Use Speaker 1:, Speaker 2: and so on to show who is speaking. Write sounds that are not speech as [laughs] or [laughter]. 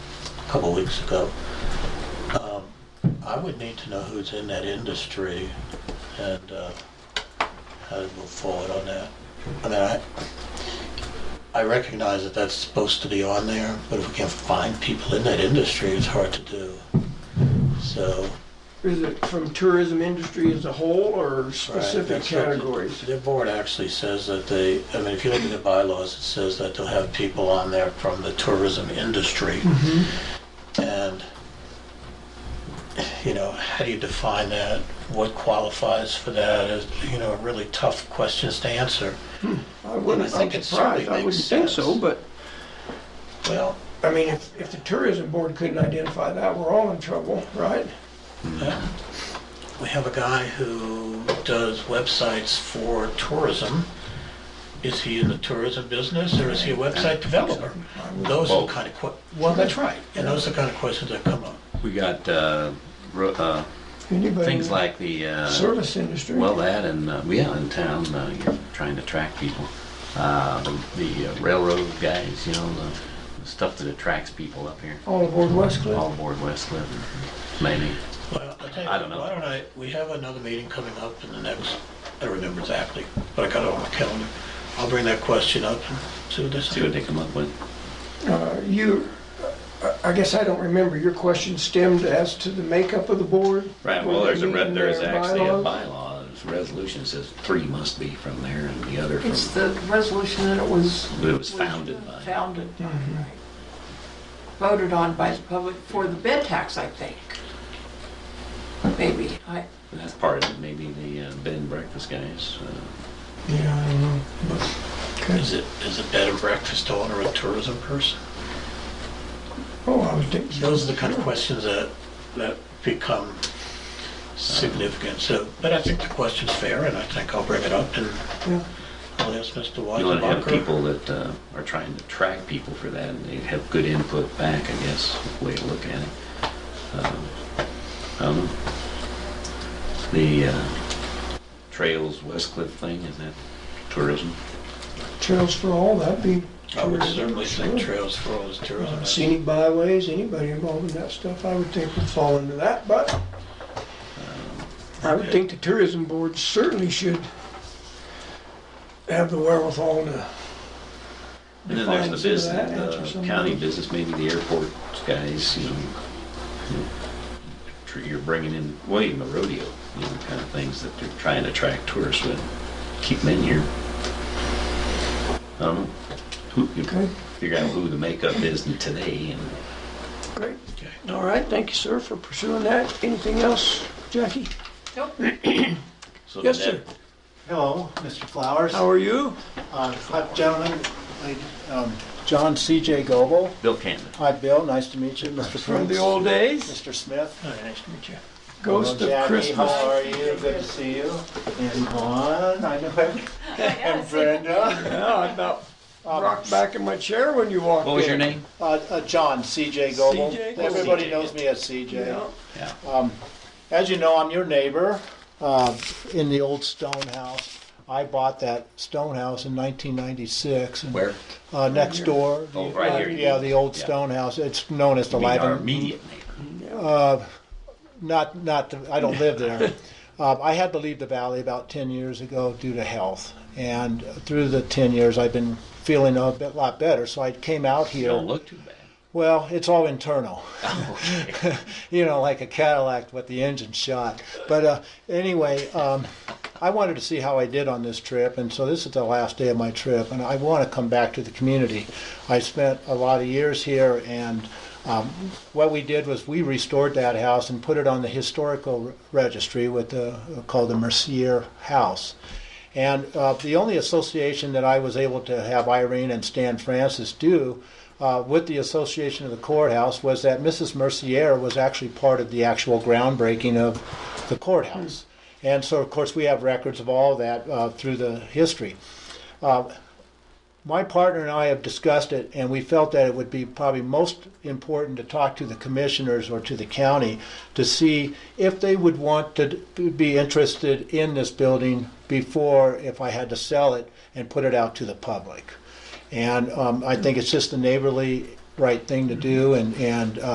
Speaker 1: a couple weeks ago. Um, I would need to know who's in that industry and uh, how to move forward on that. I mean, I, I recognize that that's supposed to be on there, but if we can't find people in that industry, it's hard to do. So.
Speaker 2: Is it from tourism industry as a whole or
Speaker 1: right,
Speaker 2: specific
Speaker 1: that's what the-
Speaker 2: categories?
Speaker 1: Their board actually says that they, I mean, if you look at the bylaws, it says that they'll have people on there from the tourism industry. And, you know, how do you define that? What qualifies for that is, you know, really tough questions to answer.
Speaker 2: I wouldn't,
Speaker 1: I think
Speaker 2: I'm
Speaker 1: it certainly
Speaker 2: surprised, I
Speaker 1: makes
Speaker 2: wouldn't think so,
Speaker 1: sense.
Speaker 2: but,
Speaker 1: Well,
Speaker 2: I mean, if, if the tourism board couldn't identify that, we're all in trouble, right?
Speaker 1: yeah. uh, we have a guy who does websites for tourism. Is he in the tourism business or is he a website developer? Those are the kind of que, well, that's right, and those are the kind of questions that come up.
Speaker 3: We got uh, ro- uh,
Speaker 2: Anybody
Speaker 3: things
Speaker 2: in
Speaker 3: like the,
Speaker 2: the
Speaker 3: uh,
Speaker 2: Service industry.
Speaker 3: well, that and, uh, yeah, in town, uh, you're trying to track people. Uh, the- The uh, railroad guys, you know, the- the stuff that attracts people up here,
Speaker 2: All aboard West
Speaker 3: all
Speaker 2: Cliff.
Speaker 3: aboard West Cliff, maybe.
Speaker 1: Well, I tell you,
Speaker 3: I don't know.
Speaker 1: Why don't I, we have another meeting coming up in the next, I don't remember exactly, but I got it on my calendar. I'll bring that question up and see what they
Speaker 3: See what
Speaker 1: say.
Speaker 3: they come up with.
Speaker 2: Uh, You, I- I guess I don't remember, your question stemmed as to the makeup of the board?
Speaker 3: Right, well, there's a,
Speaker 2: Were they
Speaker 3: re-
Speaker 2: meeting
Speaker 3: there's
Speaker 2: their
Speaker 3: actually a
Speaker 2: bylaws?
Speaker 3: bylaw, there's a resolution that says three must be from there and the other
Speaker 4: It's
Speaker 3: from,
Speaker 4: the resolution that it was.
Speaker 3: it was founded by.
Speaker 4: Founded by, right. Voted on by the public for the bed tax, I think. Maybe, I,
Speaker 3: And That's part of it, maybe the uh, bed and breakfast guys. uh,
Speaker 2: Yeah, I don't know. Okay.
Speaker 1: Is it, is a bed and breakfast owner a tourism person?
Speaker 2: Oh, I was thinking.
Speaker 1: Those are the kind of questions that, that become significant, so, but I think the question's fair, and I think I'll bring it up, and
Speaker 2: Yeah.
Speaker 1: I'll ask Mr.
Speaker 3: You want to have
Speaker 1: Weisenbacher.
Speaker 3: people that uh, are trying to track people for that and they have good input back, I guess, way to look at it. Um, I don't know. The uh, Trails West Cliff thing, is that tourism?
Speaker 2: Trails for all, that'd be.
Speaker 1: I would
Speaker 2: tourism,
Speaker 1: certainly think
Speaker 2: sure.
Speaker 1: Trails for All is tourism.
Speaker 2: Scenic byways, anybody involved in that stuff, I would think would fall into that, but I would think the tourism board certainly should have the wherewithal to,
Speaker 3: And then there's
Speaker 2: Define
Speaker 3: the
Speaker 2: some of that, answer
Speaker 3: business,
Speaker 2: some
Speaker 3: the
Speaker 2: of
Speaker 3: county
Speaker 2: those.
Speaker 3: business, maybe the airport guys, you know. you know, tr- You're bringing in, well, even the rodeo, you know, kind of things that they're trying to attract tourists with. Keep them in here. I don't know. Who, you
Speaker 2: Okay.
Speaker 3: figure out who the makeup is in today and
Speaker 2: great.
Speaker 1: Okay.
Speaker 2: All right, thank you, sir, for pursuing that. Anything else, Jackie?
Speaker 4: nope,
Speaker 3: so.
Speaker 2: Yes,
Speaker 3: that-
Speaker 2: sir.
Speaker 5: Hello, Mr. Flowers.
Speaker 2: How are you?
Speaker 5: Uh, Hi, gentlemen. Lady- um, John C.J. Goble.
Speaker 3: Bill Cannon.
Speaker 5: Hi, Bill. Nice to meet you. Mr.
Speaker 2: From the
Speaker 5: Prince.
Speaker 2: old days?
Speaker 5: Mr. Smith.
Speaker 1: Nice to meet you.
Speaker 2: Ghost
Speaker 5: Hello,
Speaker 2: of
Speaker 5: Jackie.
Speaker 2: Christmas.
Speaker 5: How are you? Good to see you. And Juan, [laughs] I know him. And Brenda.
Speaker 2: Yeah, I about rocked back in my chair when you walked in.
Speaker 3: What was your name?
Speaker 5: Uh, uh, John C.J. Goble.
Speaker 2: C.J. Goble.
Speaker 5: Everybody
Speaker 3: C.J.,
Speaker 5: knows
Speaker 3: yeah.
Speaker 5: me as C.J.
Speaker 2: Yeah.
Speaker 3: Yeah.
Speaker 5: Um, As you know, I'm your neighbor uh, in the old stone house. I bought that stone house in 1996. and-
Speaker 3: Where?
Speaker 5: Uh, next door.
Speaker 3: Oh, right here.
Speaker 5: Yeah, the old
Speaker 3: Yeah.
Speaker 5: stone house. It's known as the
Speaker 3: Being our
Speaker 5: Lyman.
Speaker 3: immediate neighbor.
Speaker 5: Not, not. The, I don't
Speaker 3: [laughs]
Speaker 5: live there. um, I had to leave the valley about ten years ago due to health, and through the ten years, I've been feeling a bit lot better. So I came out
Speaker 3: You
Speaker 5: here.
Speaker 3: don't look too bad.
Speaker 5: Well, it's all internal.
Speaker 3: Okay.
Speaker 5: [laughs] you know, like a Cadillac with the engine shot. But uh, anyway, um, I wanted to see how I did on this trip, and so this is the last day of my trip, and I want to come back to the community. I spent a lot of years here, and um, what we did was we restored that house and put it on the historical re- registry with the called the Mercier House. And uh, the only association that I was able to have Irene and Stan Francis do uh, with the Association of the Courthouse was that Mrs. Mercier was actually part of the actual groundbreaking of the courthouse. And so, of course, we have records of all that uh, through the history. Uh, my partner and I have discussed it, and we felt that it would be probably most important to talk to the commissioners or to the county to see if they would want to d- be interested in this building before if I had to sell it and put it out to the public. And um, I think it's just the neighborly right thing to do, and, and